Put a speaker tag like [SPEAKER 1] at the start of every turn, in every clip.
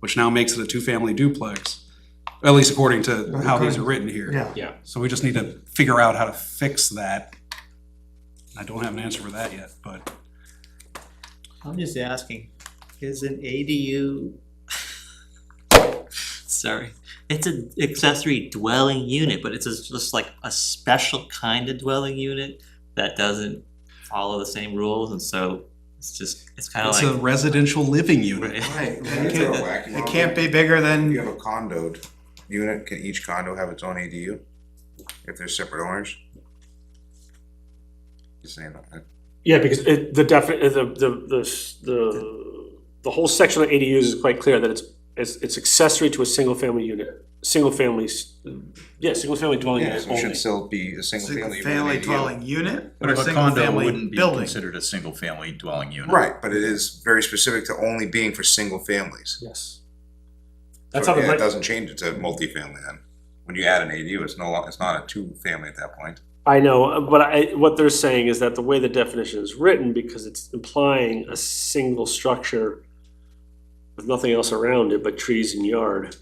[SPEAKER 1] which now makes it a two-family duplex, at least according to how these are written here.
[SPEAKER 2] Yeah.
[SPEAKER 1] So we just need to figure out how to fix that. I don't have an answer for that yet, but
[SPEAKER 3] I'm just asking, is an ADU? Sorry, it's an accessory dwelling unit, but it's just just like a special kind of dwelling unit that doesn't follow the same rules, and so it's just, it's kinda
[SPEAKER 1] it's a
[SPEAKER 3] like.
[SPEAKER 1] residential living unit.
[SPEAKER 3] Right.
[SPEAKER 2] Right.
[SPEAKER 4] Can you
[SPEAKER 2] It
[SPEAKER 4] throw a
[SPEAKER 2] can't-
[SPEAKER 4] whack
[SPEAKER 2] it
[SPEAKER 4] model?
[SPEAKER 2] can't be bigger
[SPEAKER 4] If
[SPEAKER 2] than,
[SPEAKER 4] You have a condoed unit, can each condo have its own ADU? If they're separate owners? Just saying that.
[SPEAKER 5] Yeah, because it, the defi, uh, the, the, the, s- the, the whole section of ADUs is quite clear that it's, it's, it's accessory to a single family unit, single family, s- Oh, yeah, single family dwelling
[SPEAKER 4] Yeah,
[SPEAKER 5] unit
[SPEAKER 4] so it should
[SPEAKER 5] only.
[SPEAKER 4] still be a single
[SPEAKER 2] single
[SPEAKER 4] family. with an E
[SPEAKER 2] family
[SPEAKER 4] ADU.
[SPEAKER 2] dwelling unit or
[SPEAKER 6] But
[SPEAKER 2] a
[SPEAKER 6] if a
[SPEAKER 2] single
[SPEAKER 6] condo
[SPEAKER 2] family
[SPEAKER 6] wouldn't be
[SPEAKER 2] building.
[SPEAKER 6] considered a single-family dwelling unit.
[SPEAKER 4] Right, but it is very specific to only being for single families.
[SPEAKER 5] Yes. That's how
[SPEAKER 4] So
[SPEAKER 5] the,
[SPEAKER 4] yeah, it
[SPEAKER 5] reg-
[SPEAKER 4] doesn't change it to multifamily then. When you add an ADU, it's no, lo- it's not a two-family at that point.
[SPEAKER 5] I know, uh, but I, what they're saying is that the way the definition is written, because it's implying a single structure with nothing else around it but trees and yard.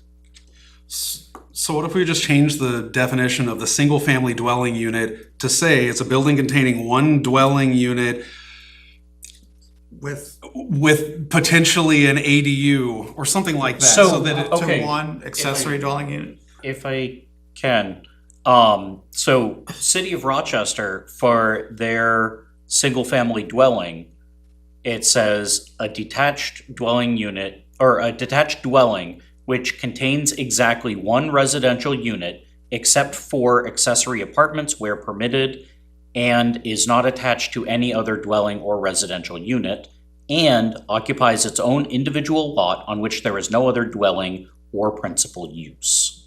[SPEAKER 1] S- So what if we just change the definition of the single-family dwelling unit to say it's a building containing one dwelling unit
[SPEAKER 2] With,
[SPEAKER 1] with potentially an ADU or something like that?
[SPEAKER 6] So-
[SPEAKER 1] that it-
[SPEAKER 2] to
[SPEAKER 6] Okay.
[SPEAKER 2] one accessory dwelling unit.
[SPEAKER 6] If I can, um, so City of Rochester, for their single-family dwelling, it says a detached dwelling unit, or a detached dwelling which contains exactly one residential unit except for accessory apartments where permitted and is not attached to any other dwelling or residential unit and occupies its own individual lot on which there is no other dwelling or principal use.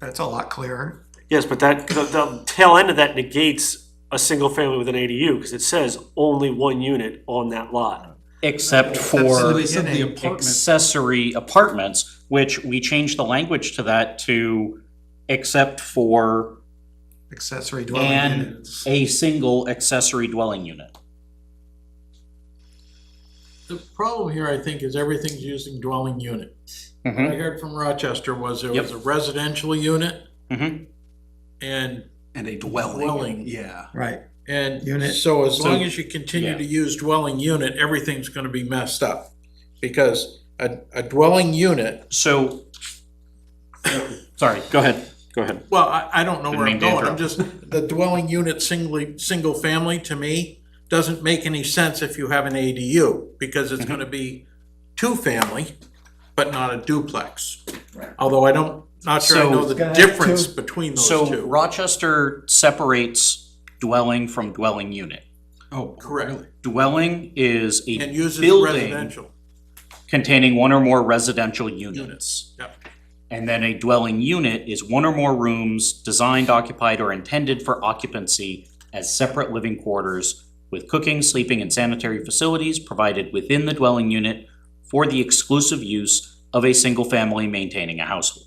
[SPEAKER 2] That's a lot clearer.
[SPEAKER 5] Yes, but that, the, the tail end of that negates a single family with an ADU, because it says only one unit on that lot.
[SPEAKER 6] Except
[SPEAKER 2] That's
[SPEAKER 6] for
[SPEAKER 2] the
[SPEAKER 1] Said the
[SPEAKER 2] beginning.
[SPEAKER 1] apartment-
[SPEAKER 6] accessory apartments, which we changed the language to that to except for
[SPEAKER 2] Accessory dwelling
[SPEAKER 6] and
[SPEAKER 2] unit.
[SPEAKER 6] a single accessory dwelling unit.
[SPEAKER 7] The problem here, I think, is everything's using dwelling unit. What I heard from Rochester was there was a residential unit
[SPEAKER 6] Mhm.
[SPEAKER 7] and,
[SPEAKER 1] And a dwelling.
[SPEAKER 7] Dwelling.
[SPEAKER 1] Yeah.
[SPEAKER 2] Right. Unit.
[SPEAKER 7] and so as long
[SPEAKER 5] So-
[SPEAKER 7] as you continue
[SPEAKER 6] Yeah.
[SPEAKER 7] to use dwelling unit, everything's gonna be messed up. Because a, a dwelling unit,
[SPEAKER 6] So, sorry, go ahead, go ahead.
[SPEAKER 7] well, I, I don't know
[SPEAKER 6] Didn't
[SPEAKER 7] where I'm
[SPEAKER 6] mean to
[SPEAKER 7] going, I'm
[SPEAKER 6] interrupt.
[SPEAKER 7] just, the dwelling unit singly, single family to me doesn't make any sense if you have an ADU, because
[SPEAKER 6] Mm-hmm.
[SPEAKER 7] it's gonna be two-family, but not a duplex. Although I don't, not sure I
[SPEAKER 6] So-
[SPEAKER 7] know the difference between those two.
[SPEAKER 6] So Rochester separates dwelling from dwelling unit.
[SPEAKER 1] Oh,
[SPEAKER 7] Correct.
[SPEAKER 1] really?
[SPEAKER 6] Dwelling is a
[SPEAKER 7] And uses
[SPEAKER 6] building
[SPEAKER 7] residential.
[SPEAKER 6] containing one or more residential units.
[SPEAKER 7] Yep.
[SPEAKER 6] And then a dwelling unit is one or more rooms designed, occupied, or intended for occupancy as separate living quarters with cooking, sleeping, and sanitary facilities provided within the dwelling unit for the exclusive use of a single family maintaining a household.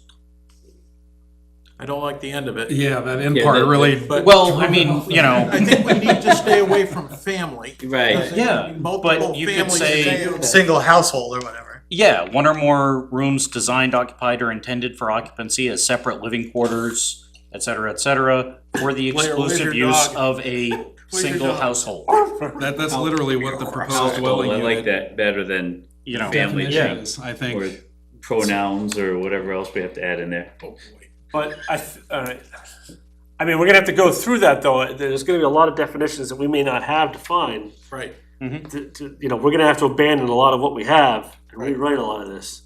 [SPEAKER 7] I don't like the end of it.
[SPEAKER 1] Yeah, that end part really.
[SPEAKER 7] But
[SPEAKER 6] Well, I mean, you
[SPEAKER 7] I
[SPEAKER 6] know,
[SPEAKER 7] think we need to stay away from family.
[SPEAKER 3] Right.
[SPEAKER 7] because
[SPEAKER 6] Yeah,
[SPEAKER 7] it can be multiple
[SPEAKER 6] but you could
[SPEAKER 7] families
[SPEAKER 6] say-
[SPEAKER 7] in a-
[SPEAKER 2] Single household or whatever.
[SPEAKER 6] yeah, one or more rooms designed, occupied, or intended for occupancy as separate living quarters, et cetera, et cetera, for the
[SPEAKER 7] Blair, where's
[SPEAKER 6] exclusive
[SPEAKER 7] your
[SPEAKER 6] use
[SPEAKER 7] dog?
[SPEAKER 6] of a
[SPEAKER 7] Where's your
[SPEAKER 6] single
[SPEAKER 7] dog?
[SPEAKER 6] household,
[SPEAKER 1] That, that's literally what the proposed
[SPEAKER 8] Oh,
[SPEAKER 1] dwelling
[SPEAKER 8] I like
[SPEAKER 1] unit
[SPEAKER 8] that better than
[SPEAKER 6] you know.
[SPEAKER 8] Family
[SPEAKER 1] definition is, I
[SPEAKER 8] or
[SPEAKER 1] think.
[SPEAKER 8] pronouns or whatever else we have to add in there.
[SPEAKER 5] But I, th- uh, I mean, we're gonna have to go through that, though, there's gonna be a lot of definitions that we may not have defined.
[SPEAKER 7] Right.
[SPEAKER 5] to, to, you know, we're gonna have to abandon a lot of what we have and
[SPEAKER 7] Right.
[SPEAKER 5] rewrite a lot of this.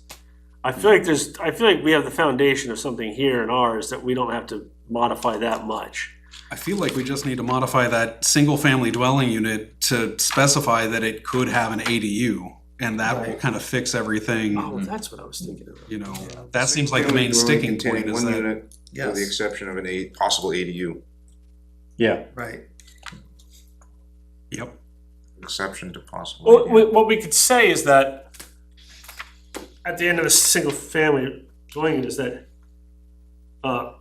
[SPEAKER 5] I feel like there's, I feel like we have the foundation of something here in ours that we don't have to modify that much.
[SPEAKER 1] I feel like we just need to modify that single-family dwelling unit to specify that it could have an ADU, and that will kind of fix everything,
[SPEAKER 5] Oh, that's what I was thinking of.
[SPEAKER 1] you know? That seems like the main
[SPEAKER 4] Dwelling
[SPEAKER 1] sticking
[SPEAKER 4] containing
[SPEAKER 1] point is
[SPEAKER 4] one
[SPEAKER 1] that,
[SPEAKER 4] unit, With the exception of an A, possible E ADU,
[SPEAKER 6] Yeah.
[SPEAKER 2] Right.
[SPEAKER 1] yep.
[SPEAKER 4] exception to possible. E
[SPEAKER 5] What,
[SPEAKER 4] ADU.
[SPEAKER 5] we- what we could say is that at the end of a single family dwelling unit is that, uh,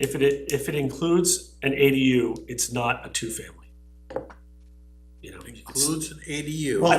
[SPEAKER 5] if it, if it includes an ADU, it's not a two-family. You know, it's-
[SPEAKER 7] Includes an ADU.
[SPEAKER 5] Well,